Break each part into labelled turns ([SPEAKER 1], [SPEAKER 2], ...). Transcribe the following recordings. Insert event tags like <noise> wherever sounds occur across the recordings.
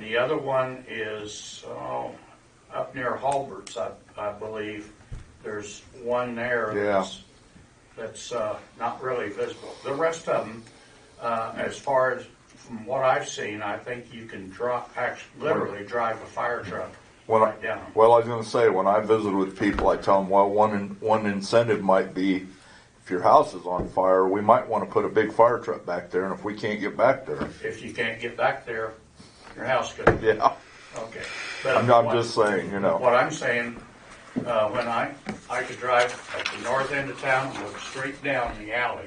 [SPEAKER 1] The other one is, oh, up near Halbert's, I, I believe. There's one there
[SPEAKER 2] Yeah.
[SPEAKER 1] that's, that's, uh, not really visible. The rest of them, uh, as far as, from what I've seen, I think you can drop, actually, literally drive a fire truck
[SPEAKER 2] When I,
[SPEAKER 1] right down.
[SPEAKER 2] well, I was going to say when I visit with people, I tell them, well, one in, one incentive might be if your house is on fire, we might want to put a big fire truck back there, and if we can't get back there, <laughs>
[SPEAKER 1] If you can't get back there, your house could,
[SPEAKER 2] yeah,
[SPEAKER 1] okay. But
[SPEAKER 2] I'm, I'm
[SPEAKER 1] what-
[SPEAKER 2] just saying, you know,
[SPEAKER 1] What I'm saying, uh, when I, I could drive at the north end of town, and look straight down the alley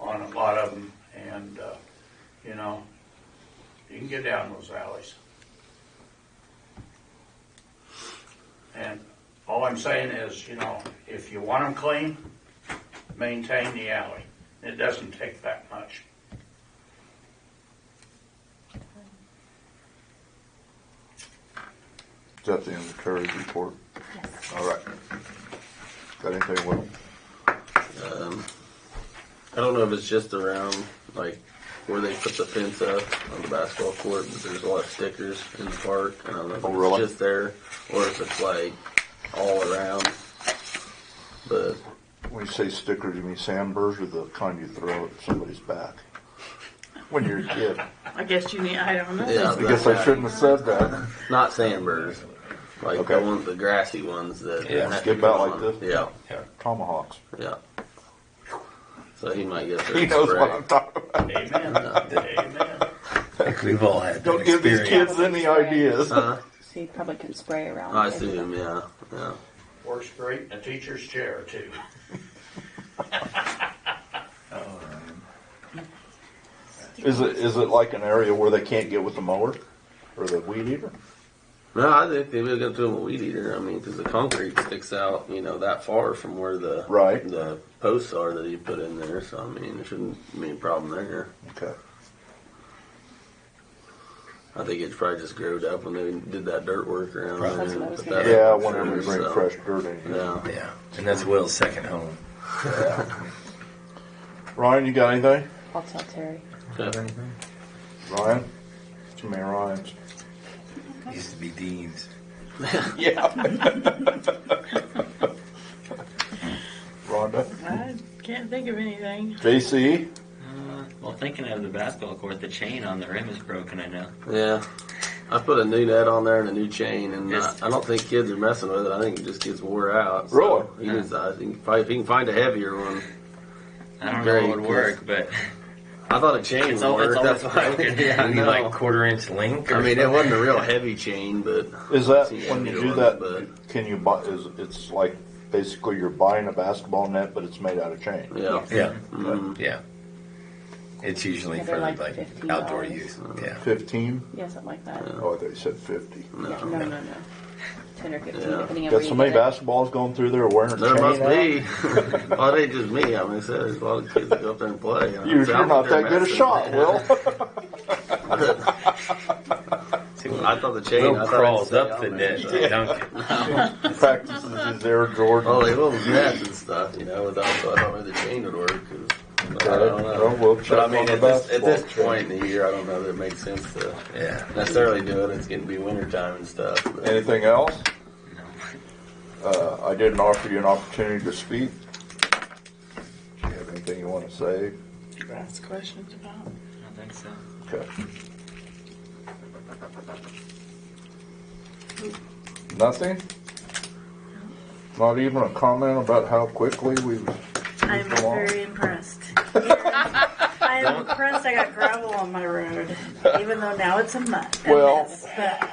[SPEAKER 1] on a lot of them, and, uh, you know, you can get down those alleys. And all I'm saying is, you know, if you want them clean, maintain the alley. It doesn't take that much.
[SPEAKER 2] Is that the end of Terry's report.
[SPEAKER 3] Yes.
[SPEAKER 2] All right. Got anything, Will?
[SPEAKER 4] Um, I don't know if it's just around like where they put the fence up on the basketball court, but there's a lot of stickers in the park. and I don't know if
[SPEAKER 2] Oh, really?
[SPEAKER 4] it's just there or if it's like all around. But
[SPEAKER 2] When you say stickers, you mean sandburrs or the kind you throw at somebody's back? When you're a kid.
[SPEAKER 5] I guess you need, I don't know.
[SPEAKER 4] yeah,
[SPEAKER 2] I guess I shouldn't have said that.
[SPEAKER 4] Not sandburrs, like
[SPEAKER 2] Okay.
[SPEAKER 4] the ones, the grassy ones that
[SPEAKER 6] Yeah.
[SPEAKER 4] have
[SPEAKER 2] Skip
[SPEAKER 4] to
[SPEAKER 2] out
[SPEAKER 4] come
[SPEAKER 2] like
[SPEAKER 4] on.
[SPEAKER 2] this?
[SPEAKER 4] Yeah,
[SPEAKER 2] Tomahawks.
[SPEAKER 4] yeah. So he might get
[SPEAKER 2] <laughs>
[SPEAKER 4] there.
[SPEAKER 2] He knows what I'm talking about.
[SPEAKER 1] Amen, amen.
[SPEAKER 6] I think we've all had that
[SPEAKER 2] Don't give these
[SPEAKER 6] experience.
[SPEAKER 2] kids any <laughs> ideas.
[SPEAKER 4] Huh?
[SPEAKER 3] So you probably can spray around.
[SPEAKER 4] Uh-huh. Oh, I
[SPEAKER 3] it.
[SPEAKER 4] assume, yeah, yeah.
[SPEAKER 1] Works great in a teacher's chair, too.
[SPEAKER 2] Is it is it like an area where they can't get with the mower or the weed eater?
[SPEAKER 4] No, I think they would go through a weed eater. I mean, because the concrete sticks out, you know, that far from where the
[SPEAKER 2] Right.
[SPEAKER 4] the posts are that he put in there. So I mean, there shouldn't be a problem there.
[SPEAKER 2] Okay.
[SPEAKER 4] I think it's probably just growed up when they did that dirt work around
[SPEAKER 6] Probably.
[SPEAKER 4] there.
[SPEAKER 3] That's what I
[SPEAKER 4] and
[SPEAKER 3] was
[SPEAKER 4] put
[SPEAKER 3] gonna
[SPEAKER 4] that
[SPEAKER 3] say.
[SPEAKER 2] Yeah,
[SPEAKER 4] up
[SPEAKER 2] whenever you
[SPEAKER 4] there,
[SPEAKER 2] bring
[SPEAKER 4] so,
[SPEAKER 2] fresh dirt in.
[SPEAKER 4] Yeah.
[SPEAKER 6] Yeah, and that's Will's second home.
[SPEAKER 2] Ryan, you got anything?
[SPEAKER 3] I'll tell Terry.
[SPEAKER 4] Okay.
[SPEAKER 2] Ryan? Too many Ryans.
[SPEAKER 6] Used to be Dean's.
[SPEAKER 2] Yeah. Rhonda? E,
[SPEAKER 5] I can't think of anything.
[SPEAKER 2] JC?
[SPEAKER 7] Well, thinking of the basketball court, the chain on the rim is broken. I know.
[SPEAKER 4] Yeah. I put a new net on there and a new chain, and I,
[SPEAKER 7] Yes.
[SPEAKER 4] I don't think kids are messing with it. I think it just gets wore out. So
[SPEAKER 2] Really?
[SPEAKER 4] He just, I think probably if he can find a heavier one,
[SPEAKER 7] I don't
[SPEAKER 4] Very
[SPEAKER 7] know what would work, but <laughs>
[SPEAKER 4] I thought a chain
[SPEAKER 7] it's,
[SPEAKER 4] would
[SPEAKER 7] all,
[SPEAKER 4] work.
[SPEAKER 7] it's always
[SPEAKER 4] That's why. <laughs>
[SPEAKER 7] broken.
[SPEAKER 4] Yeah, I
[SPEAKER 6] Maybe
[SPEAKER 4] know.
[SPEAKER 6] like quarter inch link. Or
[SPEAKER 4] I mean, it
[SPEAKER 6] something.
[SPEAKER 4] wasn't a real heavy chain, but
[SPEAKER 2] Is that
[SPEAKER 4] Yeah,
[SPEAKER 2] when you
[SPEAKER 4] it
[SPEAKER 2] do
[SPEAKER 4] was,
[SPEAKER 2] that?
[SPEAKER 4] but-
[SPEAKER 2] Can you buy? Is it's like basically you're buying a basketball net, but it's made out of chain.
[SPEAKER 4] yeah.
[SPEAKER 6] Yeah,
[SPEAKER 4] Mhm.
[SPEAKER 6] yeah. It's usually
[SPEAKER 3] Yeah, they're
[SPEAKER 6] for
[SPEAKER 3] like Mm.
[SPEAKER 6] like,
[SPEAKER 3] $15.
[SPEAKER 6] outdoor use. Yeah.
[SPEAKER 2] Fifteen?
[SPEAKER 3] Yeah, something like that.
[SPEAKER 2] Oh, I thought you said fifty.
[SPEAKER 3] No,
[SPEAKER 4] No.
[SPEAKER 3] no, no, no. Ten or fifteen,
[SPEAKER 4] Yeah.
[SPEAKER 3] depending on
[SPEAKER 2] Got
[SPEAKER 3] where
[SPEAKER 2] so
[SPEAKER 3] you
[SPEAKER 2] many
[SPEAKER 3] get it.
[SPEAKER 2] basketballs going through there wearing a
[SPEAKER 4] There
[SPEAKER 2] chain.
[SPEAKER 4] must
[SPEAKER 2] out?
[SPEAKER 4] be. <laughs> well, it ain't just me. I mean, I said, there's a lot of kids that go up there and play. You know,
[SPEAKER 2] You're,
[SPEAKER 4] so
[SPEAKER 2] you're
[SPEAKER 4] I'm
[SPEAKER 2] not
[SPEAKER 4] up there
[SPEAKER 2] that good a
[SPEAKER 4] messing.
[SPEAKER 2] shot, Will.
[SPEAKER 4] <laughs> I thought the chain. I
[SPEAKER 6] Will
[SPEAKER 4] thought
[SPEAKER 6] crawls
[SPEAKER 4] I'd stay
[SPEAKER 6] up
[SPEAKER 4] on
[SPEAKER 6] the
[SPEAKER 4] there,
[SPEAKER 6] net
[SPEAKER 4] so-
[SPEAKER 6] to dunk it.
[SPEAKER 2] Practices his Air Jordan.
[SPEAKER 4] Well, they will nets and stuff, you know. Without, so I don't know if the chain would work. 'cause- but I don't
[SPEAKER 2] Well,
[SPEAKER 4] know.
[SPEAKER 2] we'll check
[SPEAKER 4] but I
[SPEAKER 2] on
[SPEAKER 4] mean,
[SPEAKER 2] the
[SPEAKER 4] at this, at
[SPEAKER 2] basketball
[SPEAKER 4] this point in the year, I don't know that it makes sense to <laughs>
[SPEAKER 6] Yeah.
[SPEAKER 4] necessarily do it. It's going to be wintertime and stuff. but-
[SPEAKER 2] Anything else? Uh, I didn't offer you an opportunity to speak. Do you have anything you want to say?
[SPEAKER 5] Ask questions about.
[SPEAKER 7] I don't think so.
[SPEAKER 2] Okay. Nothing? Not even a comment about how quickly we
[SPEAKER 8] I'm
[SPEAKER 2] Go on. <laughs>
[SPEAKER 8] very impressed. I am impressed I got gravel on my road, even though now it's a mud. a
[SPEAKER 2] Well-
[SPEAKER 8] mess, but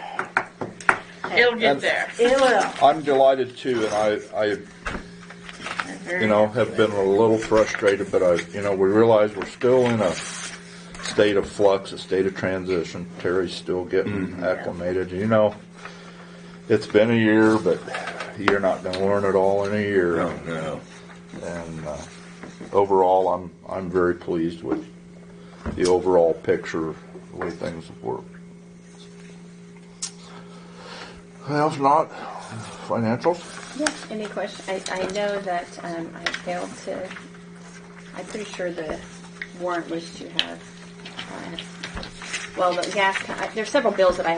[SPEAKER 5] It'll get there.
[SPEAKER 8] It will.
[SPEAKER 2] I'm delighted too, and I, I,
[SPEAKER 8] I'm very-
[SPEAKER 2] you know, have been a little frustrated, but I, you know, we realize we're still in a state of flux, a state of transition. Terry's still getting acclimated, you know. It's been a year, but you're not gonna learn it all in a year.
[SPEAKER 6] No, Oh, no.
[SPEAKER 2] And uh, overall, I'm, I'm very pleased with the overall picture, the way things have worked. Well, if not, financials?
[SPEAKER 3] Yeah, any question? I, I know that, um, I failed to, I'm pretty sure the warrant was to have, uh, well, the gas, co- I- there's several bills that I